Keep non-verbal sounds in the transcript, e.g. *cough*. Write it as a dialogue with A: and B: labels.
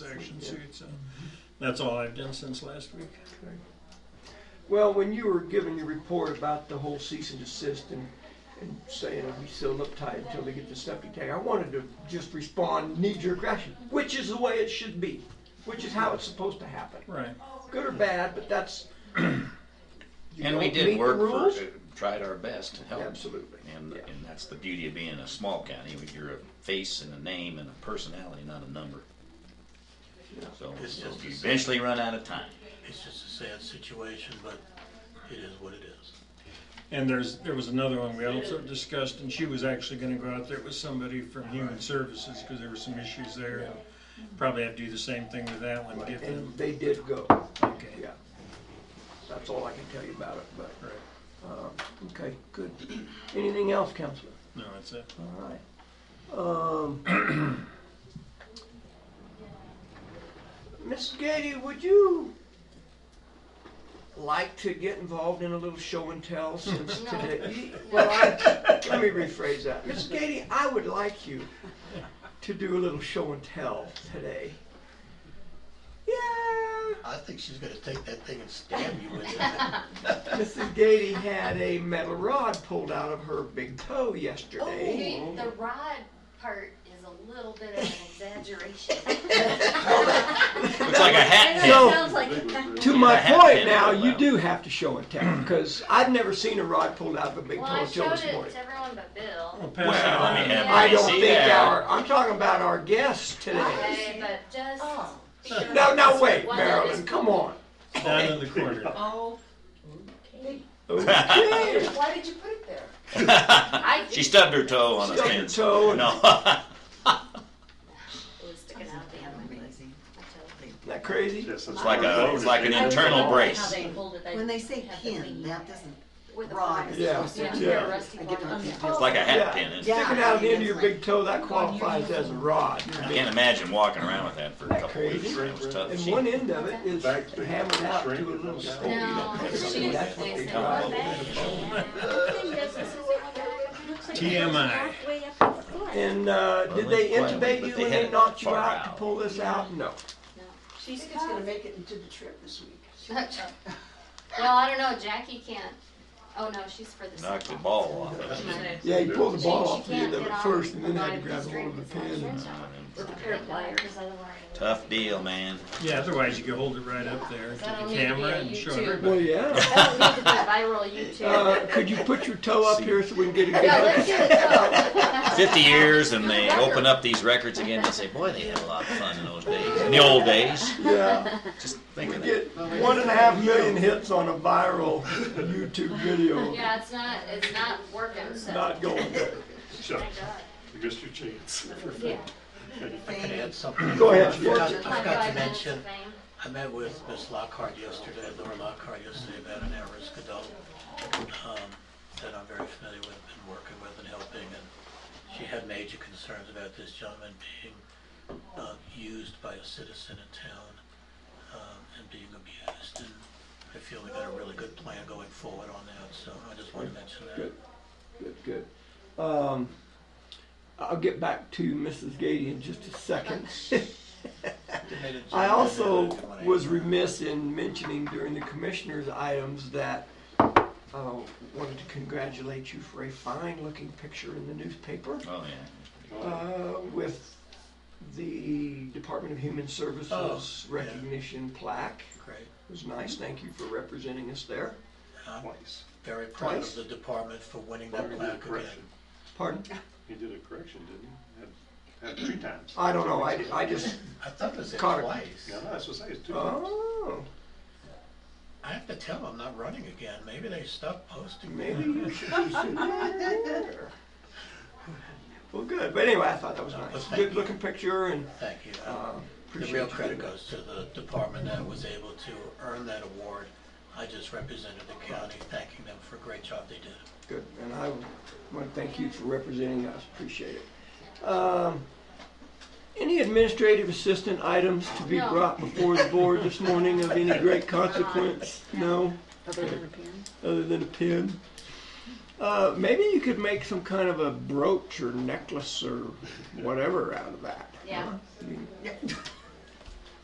A: information sheet, so that's all I've done since last week.
B: Well, when you were giving your report about the whole cease and desist and, and saying we still look tight until they get the septic tank, I wanted to just respond knee jerk reaction, which is the way it should be, which is how it's supposed to happen.
A: Right.
B: Good or bad, but that's. you
C: And we
B: don't
C: did
B: meet the
C: work
B: rules?
C: for, uh, tried our best to help.
B: Absolutely,
C: And,
B: yeah.
C: and that's the beauty of being a small county, when you're a face and a name and a personality, not a number.
B: Yeah.
C: So
D: It's
C: so
D: just
C: you
D: the same.
C: eventually run out of time.
D: It's just a sad situation, but it is what it is.
A: And there's, there was another one we also discussed, and she was actually gonna go out there with somebody from Human Services, cause there were some issues there. and Probably have to do the same thing with that one, give them,
B: And they did go,
A: okay,
B: yeah. That's all I can tell you about it, but,
A: right,
B: okay, good. Anything else, Counselor?
A: no, that's it.
B: All right. Um, *clears throat* Miss Gady, would you like to get involved in a little show and tell since today? Well, I, let me rephrase that. Miss Gady, I would like you to do a little show and tell today. Yeah.
D: I think she's gonna take that thing and stab you with it.
B: Mrs. Gady had a metal rod pulled out of her big toe yesterday.
E: Oh, the rod part is a little bit of an
C: *laughs*
E: exaggeration.
C: Looks like a
B: *laughs*
C: hat
E: I
C: pin.
B: So-
E: know it sounds like,
B: To my
C: Yeah,
B: point
C: and
B: now,
C: it
B: you
C: will.
B: do have to show and
C: *clears throat*
B: tell, because I've never seen a rod pulled out of a big
E: well, I
B: toe till
E: showed
B: this
E: it
B: morning.
E: to everyone but Bill.
A: Well, pass it
C: Well, I mean,
A: around.
E: yeah.
B: I don't
C: See
B: think
C: there.
B: our, I'm talking about our guests today.
E: Okay, but just.
B: Oh. No, no, wait,
E: One
B: Marilyn,
E: is-
C: Uh,
B: come
C: *laughs*
B: on.
A: down in the corner. *laughs*
F: Oh,
B: Okay.
F: why did you put it there?
E: I
C: *laughs* She stubbed her toe on a
B: Stubbed your
C: fence.
B: toe and
C: No. *laughs*
E: It was sticking out the end of my leg. My toe.
B: isn't that crazy?
G: Yes,
C: It's like a, it's like an
F: I was
C: internal
F: wondering
E: How
C: brace.
E: they hold it, they
F: When they say
E: have the
F: pin,
E: lead
F: that doesn't,
E: with a
F: rod
E: rod.
F: is
B: Yeah,
F: supposed to.
B: yeah.
E: rusty
F: I get my
E: one.
F: pin.
C: It's like a hat
B: Yeah.
C: pin. It's-
F: Yeah.
B: Sticking out of the end of your
F: That's like-
B: big toe, that qualifies as a rod.
C: I can't imagine walking around with that for a couple of weeks. That was tough.
B: And
C: She-
B: one end of it is
G: Back to-
B: hammered out to a
G: shrink it
B: little
G: down.
B: stick.
E: No,
B: That's
E: she was
B: what they
E: wasting
B: drive.
E: one back.
A: TMI.
B: And, uh,
C: Well,
B: did
C: they
B: they
C: planned it,
B: intubate
C: but
B: you
C: they
B: when
C: had
B: they
C: it
B: knocked you
C: far
B: out to
C: out.
B: pull this out? No.
F: I think it's gonna make it into the trip this week.
E: Well, I don't know, Jackie can't, oh no, she's for the.
C: Knocked the
E: softball.
C: ball off of it.
B: Yeah, you pulled the
E: She-
B: ball
E: she
B: off the
E: can't
B: end of
E: get
B: it
E: on
B: first and then
E: the
B: had to
E: line
B: grab
E: the
B: hold of the
E: string
B: pin.
E: because With a pair of pliers, otherwise.
C: Tough deal, man.
A: Yeah, otherwise you could hold it right up there to
E: That'll
A: the
E: need to be
A: camera
E: a
A: and show
E: YouTube.
A: everybody.
B: Well, yeah.
E: *laughs* That'll need to be viral YouTube.
B: *laughs* Uh, could you put your toe up here so we can get a good
E: *laughs* Yeah,
B: look?
E: let's do it.
C: 50 years and they open up these records again and say, boy, they had a lot of fun in those days. In the old days.
B: *laughs* Yeah.
C: Just think
B: We
C: of that.
B: get one and a half million hits on a viral YouTube video.
E: Yeah, it's not, it's not working, so.
B: Uh, Not going good.
G: Chuck,
E: Thank God.
G: you missed your chance. *laughs*
E: Yeah.
D: I can add something.
B: Go ahead.
D: I forgot- I
E: My
D: forgot to
E: five minutes
D: mention,
E: of fame.
D: I met with Miss Lockhart yesterday, Laura Lockhart yesterday, about an at-risk adult um, that I'm very familiar with, been working with and helping, and she had major concerns about this gentleman being uh, used by a citizen in town um, and being abused, and I feel we got a really good plan going forward on that, so I just want to mention that.
B: Good, good, good. Um, I'll get back to Mrs. Gady in just a second. I also was remiss in mentioning during the commissioners' items that uh, wanted to congratulate you for a fine-looking picture in the newspaper
C: Oh, yeah.
B: uh, with the Department of Human Services
D: Oh, yeah.
B: recognition plaque.
D: Great.
B: It was nice. Thank you for representing us there.
D: I'm
G: Twice.
D: very proud
B: Twice?
D: of the department for winning that
G: He did a
D: plaque again.
G: correction.
B: Pardon?
G: He did a correction, didn't he? Had, had three times.
B: I don't know. I, I
D: *laughs*
B: just.
D: I thought it was it
B: Connor.
D: twice.
G: Yeah, that's what I say, it's two times.
B: Oh,
D: I have to tell them I'm not running again. Maybe they stopped posting. me.
B: maybe you should. you should go there. Well, good. But anyway, I thought that was nice. Good looking picture and
D: Thank you.
B: uh,
D: The
B: appreciate
D: real
B: you
D: credit
B: doing
D: goes to the department that was able to earn that award. I just represented the county, thanking them for a great job they did.
B: Good, and I want to thank you for representing us, appreciate it. Um, Any administrative assistant items to be
E: No.
B: brought before the board this morning of any
F: *laughs*
B: great consequence? No,
F: Other than a pin?
B: other than a pin? Uh, Maybe you could make some kind of
D: uh,
B: a brooch or necklace or whatever out of that.
E: Yeah.